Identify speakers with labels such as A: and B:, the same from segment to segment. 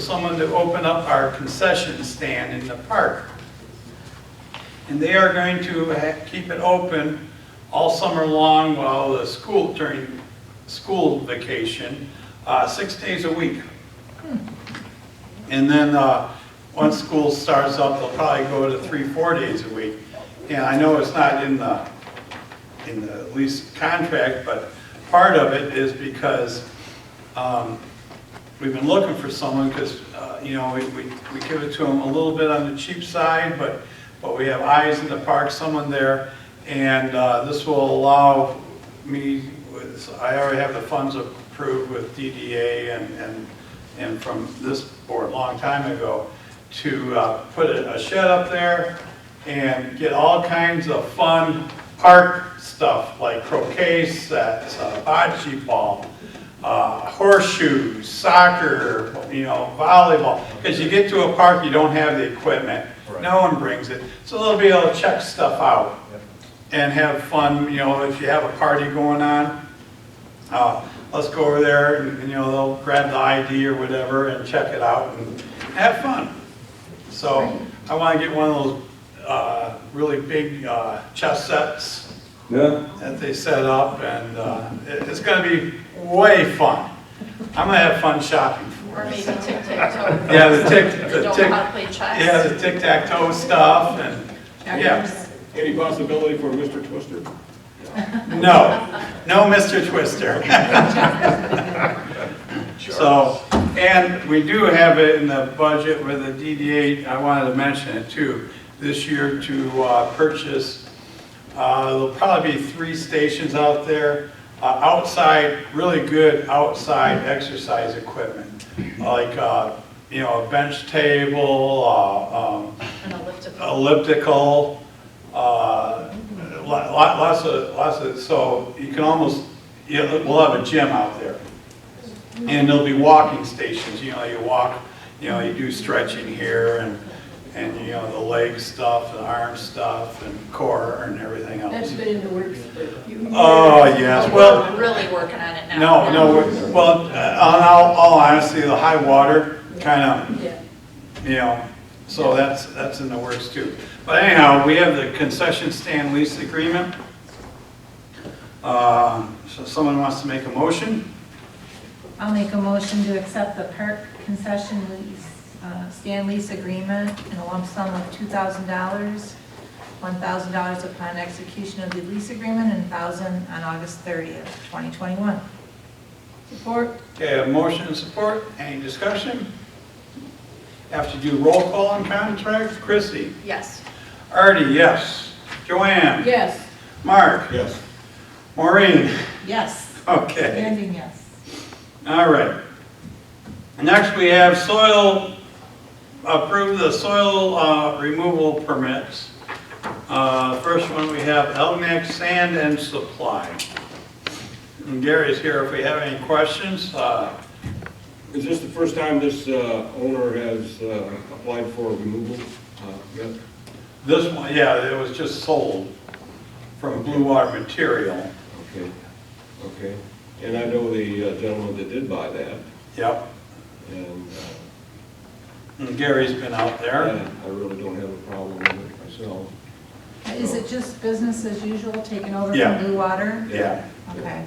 A: someone to open up our concession stand in the park. And they are going to ha- keep it open all summer long while the school, during school vacation, uh, six days a week. And then, uh, once school starts up, they'll probably go to three, four days a week. And I know it's not in the, in the lease contract, but part of it is because um, we've been looking for someone because, you know, we, we we give it to them a little bit on the cheap side, but, but we have eyes in the park, someone there. And uh, this will allow me, with- I already have the funds approved with DDA and, and, and from this board a long time ago, to uh, put a a shed up there and get all kinds of fun park stuff like croquet sets, uh, bocce ball, uh, horseshoes, soccer, you know, volleyball. Because you get to a park, you don't have the equipment. No one brings it. So they'll be able to check stuff out and have fun, you know, if you have a party going on. Uh, Let's go over there and, you know, they'll grab the ID or whatever and check it out and have fun. So I want to get one of those uh, really big uh, chess sets
B: Yeah,
A: that they set up, and uh, it- it's gonna be way fun. I'm gonna have fun shopping for
C: Or
A: it.
C: maybe tic-tac-toe.
A: Yeah, the tic,
C: They
A: the
C: don't know
A: tic,
C: how to play chess.
A: yeah, the tic-tac-toe stuff, and, yeah.
C: Checkers.
D: Any possibility for Mr. Twister?
A: No, no Mr. Twister. So, and we do have it in the budget with the DDA, I wanted to mention it too, this year to uh, purchase, uh, there'll probably be three stations out there, uh, outside, really good outside exercise equipment, like, uh, you know, a bench table, uh, um,
C: An elliptical.
A: elliptical, uh, lo- lo- lots of, lots of, so you can almost, you know, we'll have a gym out there. And there'll be walking stations, you know, you walk, you know, you do stretching here and, and, you know, the leg stuff, the arm stuff, and core and everything
E: That's
A: else.
E: been in the works for a few years.
A: Oh, yes, well,
C: We're really working on it now.
A: no, no, we- well, uh, in all all honesty, the high water kind of
E: Yeah.
A: you know, so that's, that's in the works too. But anyhow, we have the concession stand lease agreement. Uh, So someone wants to make a motion?
F: I'll make a motion to accept the park concession lease, uh, stand lease agreement in a lump sum of $2,000, $1,000 upon execution of the lease agreement, and 1000 on August 30th, 2021.
E: Support?
A: Okay, a motion and support, any discussion? Have to do roll call on contracts, Chrissy?
C: Yes.
A: Artie, yes. Joanne?
E: Yes.
A: Mark?
D: Yes.
A: Maureen?
F: Yes.
A: Okay.
F: Standing yes.
A: All right. Next, we have soil, approve the soil uh, removal permits. Uh, First one, we have Elginak Sand and Supply. And Gary's here if we have any questions. Uh,
D: Is this the first time this uh, owner has uh, applied for removal? Uh, yeah.
A: This one, yeah, it was just sold from Blue Water Material.
D: Okay, okay. And I know the uh, gentleman that did buy that,
A: Yep,
D: and
A: and Gary's been out
D: uh,
A: there.
D: I really don't have a problem with it myself.
F: Is it just business as usual, taken over
A: Yeah.
F: from Blue Water?
A: Yeah.
F: Okay.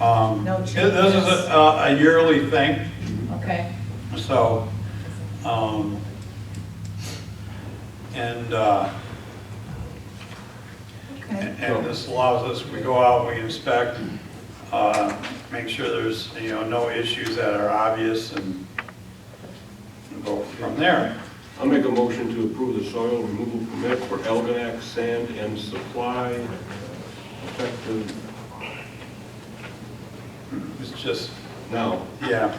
A: Um,
F: No
A: This is a uh, a yearly thing.
F: Okay.
A: So, um, and, uh,
F: Okay.
A: and and this allows us, we go out, we inspect, uh, make sure there's, you know, no issues that are obvious and go from there.
D: I'll make a motion to approve the soil removal permit for Elginak Sand and Supply uh, effective
A: It's just,
D: now.
A: yeah,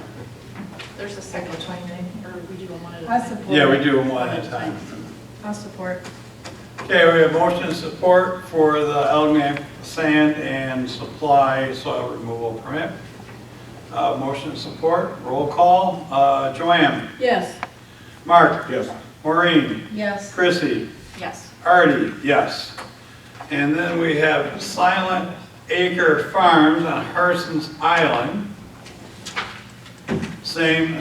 C: There's a second one, or we do them one at a
F: I
C: time.
F: support.
A: yeah, we do them one at a time.
F: I'll support.
A: Okay, we have motion and support for the Elginak Sand and Supply Soil Removal Permit. Uh, motion and support, roll call, uh, Joanne,
E: Yes.
A: Mark?
D: Yes.
A: Maureen,
F: Yes.
A: Chrissy,
C: Yes.
A: Artie, yes. And then we have Silent Acre Farms on Harson's Island. Same